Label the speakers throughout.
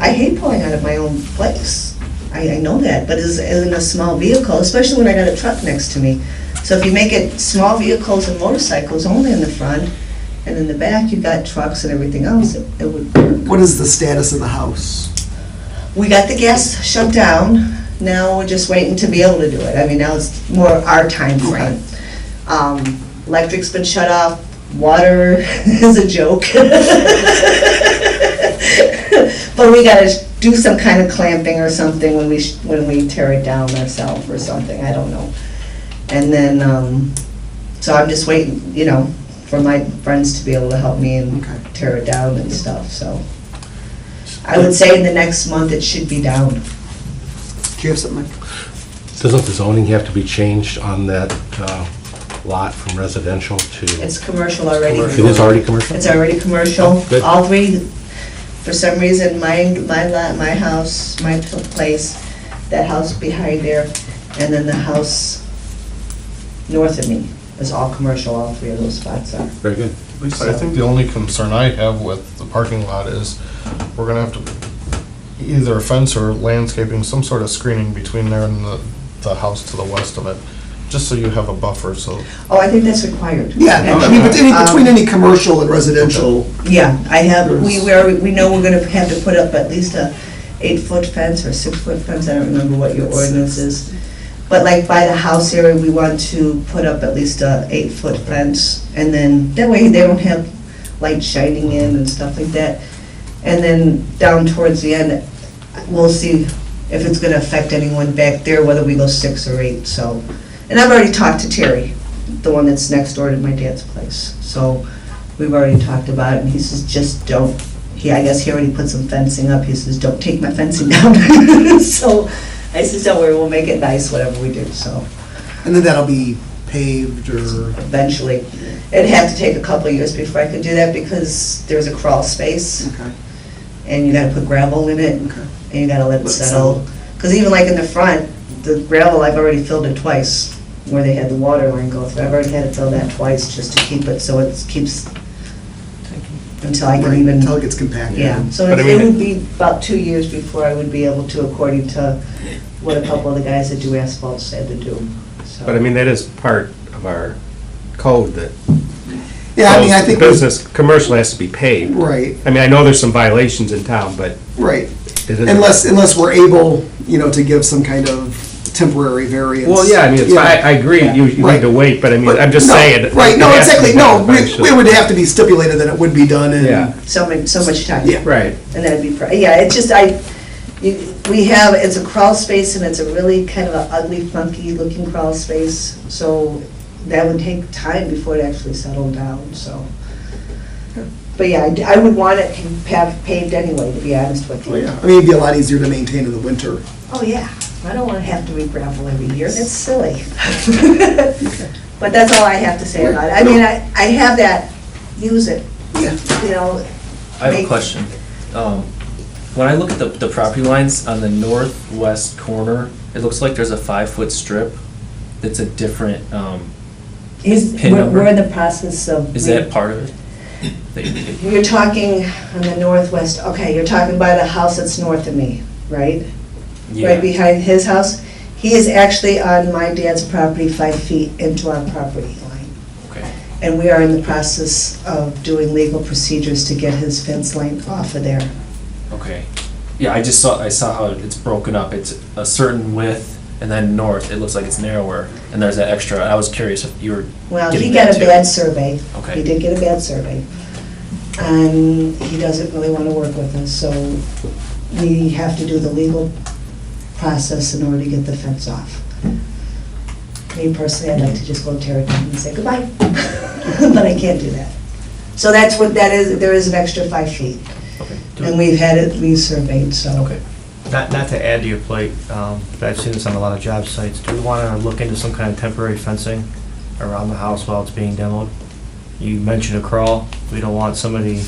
Speaker 1: I hate pulling out of my own place. I, I know that, but as, as in a small vehicle, especially when I got a truck next to me. So if you make it small vehicles and motorcycles only in the front, and in the back you got trucks and everything else, it it would work.
Speaker 2: What is the status of the house?
Speaker 1: We got the gas shut down, now we're just waiting to be able to do it. I mean, now it's more our time frame. Um, Electric's been shut off, water is a joke. But we gotta do some kind of clamping or something when we, sh- when we tear it down ourselves or something, I don't know. And then, um, so I'm just waiting, you know, for my friends to be able to help me and
Speaker 2: Okay.
Speaker 1: tear it down and stuff, so. I would say in the next month it should be down.
Speaker 2: Do you have something? Mike?
Speaker 3: Doesn't the zoning have to be changed on that uh, lot from residential to?
Speaker 1: It's commercial already.
Speaker 3: It is already commercial?
Speaker 1: It's already commercial.
Speaker 3: Oh, good.
Speaker 1: All three, for some reason, my, my lot, my house, my pl- place, that house behind there, and then the house north of me is all commercial, all three of those spots are.
Speaker 3: Very good.
Speaker 4: Lisa, I think the only concern I have with the parking lot is we're gonna have to either a fence or landscaping, some sort of screening between there and the, the house to the west of it, just so you have a buffer, so.
Speaker 1: Oh, I think that's required. Um,
Speaker 2: Yeah, I mean, but any- between any commercial and residential,
Speaker 1: Yeah, I have, we, we're, we know we're gonna have to put up at least a eight-foot fence or six-foot fence, I don't remember what your ordinance is. But like by the house area, we want to put up at least a eight-foot fence, and then, that way they don't have light shining in and stuff like that. And then down towards the end, we'll see if it's gonna affect anyone back there, whether we go six or eight, so. And I've already talked to Terry, the one that's next door to my dad's place, so we've already talked about it, and he says, just don't, he, I guess he already put some fencing up, he says, don't take my fencing down. So, I says, don't worry, we'll make it nice, whatever we do, so,
Speaker 2: and then that'll be paved or,
Speaker 1: eventually. It'd have to take a couple of years before I could do that, because there's a crawl space,
Speaker 2: okay,
Speaker 1: and you gotta put gravel in it,
Speaker 2: okay.
Speaker 1: and you gotta let it
Speaker 2: Let it
Speaker 1: settle. Because even like in the front, the gravel, I've already filled it twice, where they had the water line go through. I've already had it filled that twice, just to keep it, so it keeps, until I can
Speaker 2: Right,
Speaker 1: even,
Speaker 2: Until it gets compacted.
Speaker 1: yeah. So
Speaker 4: But I
Speaker 1: it
Speaker 4: mean-
Speaker 1: would be about two years before I would be able to, according to what a couple of the guys that do asphalt said to do, so.
Speaker 5: But I mean, that is part of our code that.
Speaker 2: Yeah, I mean, I think, we-
Speaker 5: Business, commercial has to be paid.
Speaker 2: right,
Speaker 5: I mean, I know there's some violations in town, but
Speaker 2: right.
Speaker 5: it isn't.
Speaker 2: Unless, unless we're able, you know, to give some kind of temporary variance.
Speaker 5: Well, yeah, I mean, it's, I, I agree, you, you
Speaker 2: Right.
Speaker 5: need to wait, but I mean,
Speaker 2: But
Speaker 5: I'm just
Speaker 2: no,
Speaker 5: saying.
Speaker 2: Right, no,
Speaker 5: it has to be
Speaker 2: exactly, no,
Speaker 5: done
Speaker 2: we- it would have to be stipulated that it would be done and.
Speaker 5: Yeah.
Speaker 1: So much, so much time.
Speaker 2: Yeah.
Speaker 5: Right,
Speaker 1: And that'd be, pr- yeah, it's just, I, you- we have, it's a crawl space and it's a really kind of a ugly, funky looking crawl space. So that would take time before it actually settled down, so. But yeah, I d- I would want it pa- paved anyway, to be honest with
Speaker 2: Well,
Speaker 1: you.
Speaker 2: oh, yeah, I mean, it'd be a lot easier to maintain in the winter.
Speaker 1: Oh, yeah, I don't want to have to re-gravel every year, that's silly. But that's all I have to say about it. I mean, I, I have that, use it,
Speaker 2: Yeah.
Speaker 1: you know,
Speaker 6: I have
Speaker 1: Make-
Speaker 6: a question. Um, When I look at the, the property lines on the northwest corner, it looks like there's a five-foot strip that's a different, um,
Speaker 1: is,
Speaker 6: Pin
Speaker 1: we're
Speaker 6: number.
Speaker 1: we're in the process of.
Speaker 6: is that part of it? That you did?
Speaker 1: You're talking on the northwest, okay, you're talking by the house that's north of me, right? Right
Speaker 6: Yeah.
Speaker 1: behind his house. He is actually on my dad's property, five feet into our property line.
Speaker 6: Okay.
Speaker 1: And we are in the process of doing legal procedures to get his fence line off of there.
Speaker 6: Okay. Yeah, I just saw, I saw how it's broken up. It's a certain width and then north, it looks like it's narrower. And there's that extra, I was curious if you were,
Speaker 1: Well, he
Speaker 6: Getting
Speaker 1: got
Speaker 6: that
Speaker 1: a
Speaker 6: too.
Speaker 1: bad survey.
Speaker 6: okay.
Speaker 1: He did get a bad survey. And he doesn't really want to work with us, so we have to do the legal process in order to get the fence off. Me personally, I'd like to just go tear it down and say goodbye, but I can't do that. So that's what that is, there is an extra five feet.
Speaker 6: Okay.
Speaker 1: And we've had it resurveyed, so.
Speaker 6: Okay.
Speaker 7: Not, not to add to your plate, um, but I've seen this on a lot of job sites, do we want to look into some kind of temporary fencing around the house while it's being demoed? You mentioned a crawl, we don't want somebody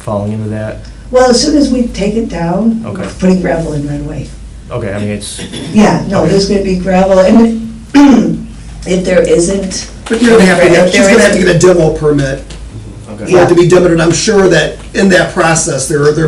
Speaker 7: falling into that.
Speaker 1: Well, as soon as we take it down, we're
Speaker 7: Okay.
Speaker 1: putting gravel in right away.
Speaker 7: Okay, I mean, it's,
Speaker 1: Yeah, no, there's gonna be gravel, and if there isn't,
Speaker 2: But you're gonna have to, get- she's gonna have to get a demo permit,
Speaker 6: Okay.
Speaker 2: you have to be demoed, and I'm sure that in that process, there are, there